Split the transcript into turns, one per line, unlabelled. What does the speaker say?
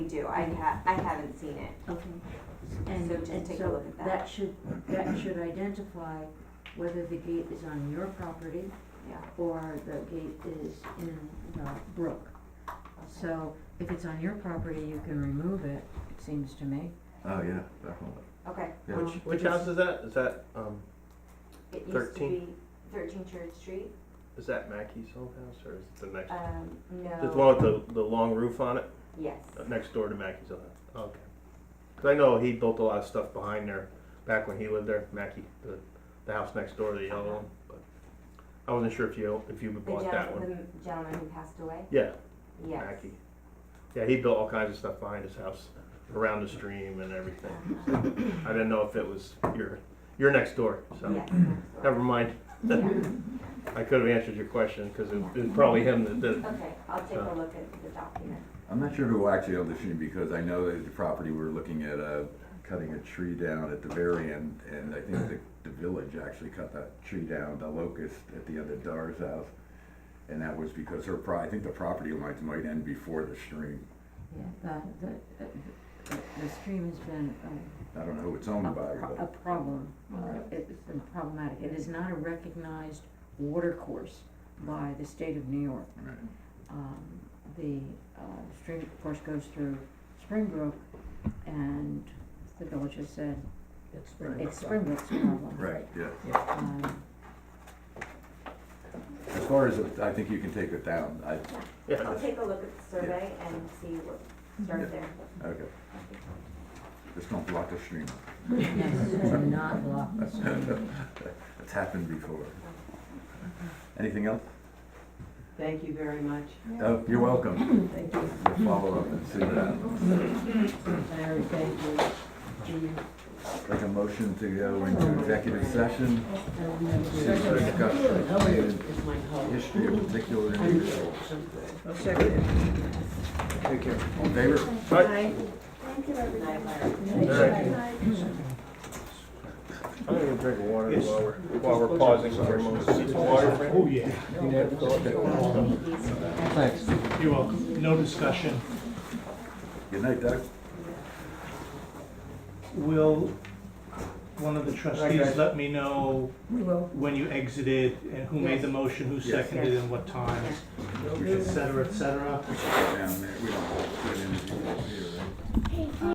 do, I ha, I haven't seen it.
Okay, and,
So just
and
take a
so
look at that.
that should, that should identify whether the gate is on your property
Yeah.
or the gate is in the brook. So if it's on your property, you can remove it, it seems to me.
Oh, yeah, definitely.
Okay,
Yeah.
Um,
Which which
if it's-
house is that? Is that um
it used to
13.
be thirteen Church Street,
is that Mackey's old house or is it the next?
um, no.
There's one with the the long roof on it
Yes,
uh, next door to Mackey's old house. Okay. Because I know he built a lot of stuff behind there back when he lived there. Mackey, the the house next door, the yellow one. But I wasn't sure if you if you
the
bought that one.
gentleman, the gentleman who passed away,
Yeah,
yes.
Mackey. Yeah, he built all kinds of stuff behind his house, around the stream and everything. So
Uh-huh.
I didn't know if it was your your next door. So
Yes, next door.
um, never mind.
Yeah.
I could have answered your question because it was probably him that did. it.
Okay, I'll take a look at the document.
I'm not sure who actually owned the stream because I know that the property we're looking at, uh, cutting a tree down at the very end. And I think the, the village actually cut that tree down, the locust at the end of Dar's house. And that was because her pro, I think the property lines might end before the stream.
Yeah, the, the, the, the stream has been a,
I don't know who it's
a
owned by,
pro- a
but
problem.
Alright.
It's been problematic, it is not a recognized water course by the state of New York.
Right.
um, the uh, stream, of course, goes through Springbrook, and the village has said
It's
it's Springbrook's problem.
Right, yeah.
Um,
As far as, it- I think you can take it down. I,
Yeah,
I'll take a look at the survey and see what,
Yeah.
start there.
okay. Just don't block the stream.
yes, do not block the stream.
It's happened before. Anything else?
Thank you very much.
Oh, you're welcome.
Thank you.
We'll follow up and see what happens.
Larry, thank you. Gene,
Like a motion to go into executive session,
and then-
Second. Discussion.
How are you? Is my help?
history of particular
I'm
individuals.
good.
take care.
All in favor?
Night, Larry.
I'm gonna go drink water while we're, while we're pausing for a moment. Need some water, Fran?
Oh, You're welcome. No discussion.
Good night, Doug.
Will one of the trustees let me know
We will.
when you exited and who made the
Yes.
motion, who
Yes.
seconded and what times, et cetera, et cetera?
Down there, we don't do an interview here, right?